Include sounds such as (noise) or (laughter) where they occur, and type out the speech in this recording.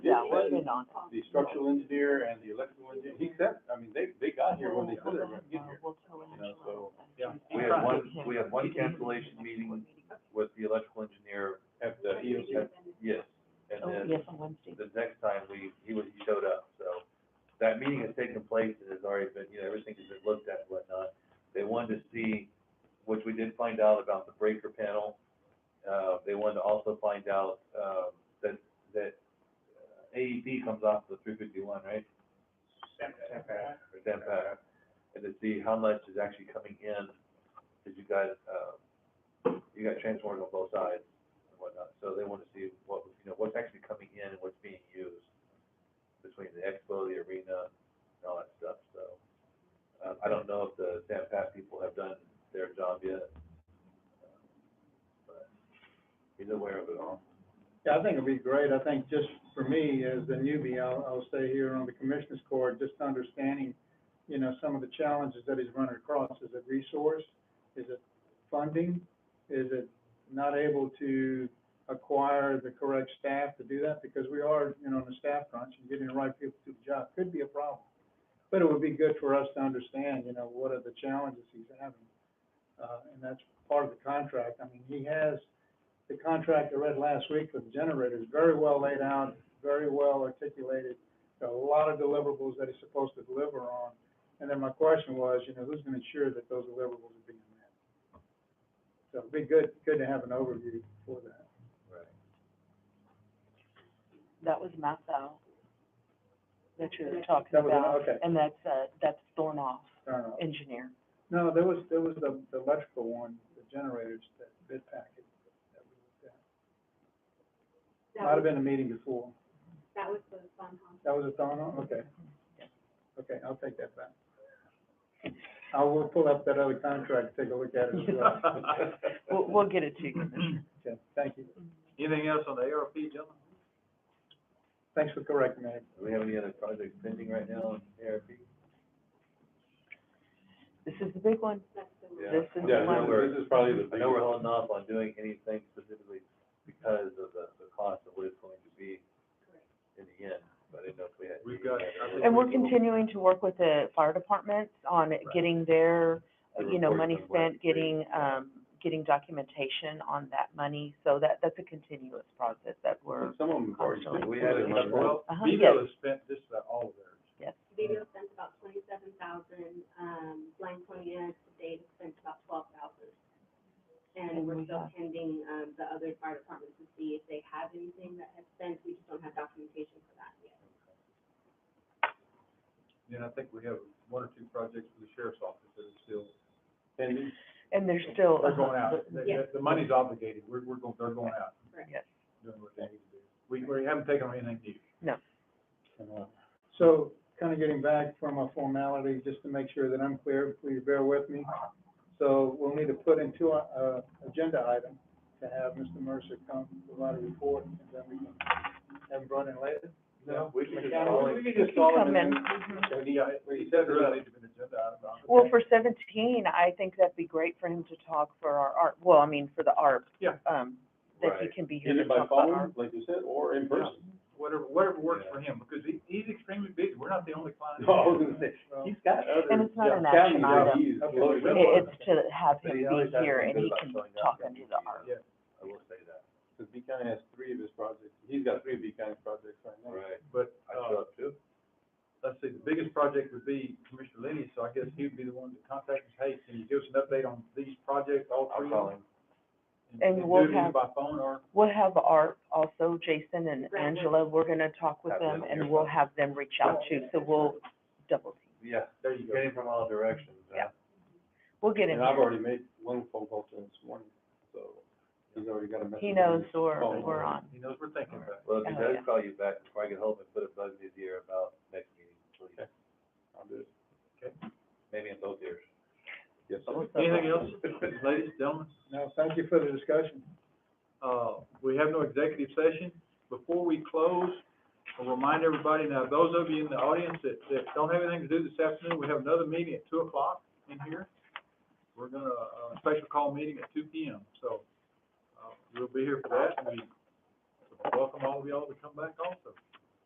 on it. the structural engineer and the electrical engineer, he said, I mean, they, they got here when they said they were gonna get here. you know, so- Yeah. We had one, we had one cancellation meeting with the electrical engineer, At the E EOC, at- yes, Oh, and then yes, on Wednesday. the next time we, he was, he showed up, so. That meeting has taken place, it has already been, you know, everything has been looked at and whatnot. They wanted to see, which we did find out about the breaker panel. Uh, they wanted to also find out, uh, that, that uh, AEP comes off the three fifty-one, right? or ten pack, and to see how much is actually coming in, because you got, uh, you got transformers on both sides and whatnot, so they want to see what, you know, what's actually coming in and what's being used between the expo, the arena, and all that stuff, so. Uh, I don't know if the San Pat people have done their job yet, but he's aware of it all. Yeah, I think it'd be great. I think just for me, as the newbie, I'll, I'll stay here on the commissioner's court, just understanding, you know, some of the challenges that he's running across. Is it resource? Is it funding? Is it not able to acquire the correct staff to do that? Because we are, you know, on the staff crunch and getting the right people to the job could be a problem. But it would be good for us to understand, you know, what are the challenges he's having? Uh, and that's part of the contract. I mean, he has the contract I read last week for the generators, very well laid out, very well articulated. Got a lot of deliverables that he's supposed to deliver on. And then my question was, you know, who's gonna ensure that those deliverables are being met? So it'd be good, good to have an overview for that. Right. That was mapped out, that you're talking That was an- about. okay. And that's, uh, that's Thornoff Fair enough. engineer. No, there was, there was the, the electrical one, the generators, that bid packet. that we looked at. Might have been a meeting before. That was the fun house. That was a thought on, okay. Okay, I'll take that back. I will pull up that other contract, take a look at it as well. We'll, we'll get it to you, Commissioner. Okay, thank you. (laughs) Anything else on the ARP, gentlemen? Thanks for correcting me. Do we have any other projects pending right now in ARP? This is the big one. Yeah. This is yeah, the I no, know one. we're- this is probably the I know we're biggest- holding off on doing anything specifically because of the, the cost of what it's going to be in the end, but I didn't know if we had. We've got- I think And we're continuing to work with the fire departments on getting their, The you know, reports money on what spent, they- getting, um, getting documentation on that money. So that, that's a continuous process that we're, Some of them have already. Constantly. been- We had it in our- Well, Uh-huh, Beville has spent just about all of theirs. yes. Video spent about twenty-seven thousand, um, Blind Point, Dave spent about twelve thousand. And And we're we still have- pending, um, the other fire departments to see if they have anything that has spent, we just don't have documentation for that yet. Then I think we have one or two projects for the sheriff's office that are still, And And there's still. they're going uh-huh, out. The, the- the money's obligated. We're, we're going, they're going out, Yes. doing what they need to do. We, we haven't taken on anything new. uh, So, kind of getting back from a formality, just to make sure that I'm clear, please bear with me. So we'll need to put into a, a agenda item to have Mr. Mercer come provide a report, and then we can have him brought in later. No, we can just Yeah, call we- it. we You just can call come him in. and Mhm. And he, he said there really needs to be an agenda item. on it. Well, for seventeen, I think that'd be great for him to talk for our art, well, I mean, for the ARP. Yeah. Um, that he Right. can be here Either to by talk about ARP. phone, like you said, or in person. Whatever, whatever works Yeah. for him, because he, he's extremely busy. We're not the only client. No, I was gonna say, Well, he's got other. And it's not an counties action that item. he's Okay. loaded up It- on. It's to have But him he always be has here been and good he about can showing up talk at into the meetings. (laughs) ARP. Yeah. I will say that, Cause B County has three of his projects, he's got three B County projects right now. right, But, I uh, show up too. let's see, the biggest project would be Commissioner Lenny, so I guess he would be the one to contact us, hey, can you give us an update on these projects, all I'll three call of them? him. And we'll do it either have- by phone or, We'll have ARP also, Jason and Right. Angela, we're gonna talk with Have them them and here. we'll have them reach out too, so we'll double, team. Yeah, there you go. getting from all directions, Yeah. huh? we'll get in And I've there. already made one phone call to him this morning, so he's already got a message. He on knows his we're, phone. we're on. He knows we're thinking All about right. Well, if he Oh, does yeah. call you back before I get home, and put a bug in his ear about next meeting, please, Okay. I'll do it. maybe in both ears. Yes, sir. it. Anything (laughs) else, ladies, gentlemen? No, thank you for the discussion. Uh, we have no executive session. Before we close, I'll remind everybody, now, those of you in the audience that, that don't have anything to do this afternoon, we have another meeting at two o'clock in here. We're gonna, uh, special call meeting at two P M, so, uh, we'll be here for that, and we welcome all of y'all to come back also.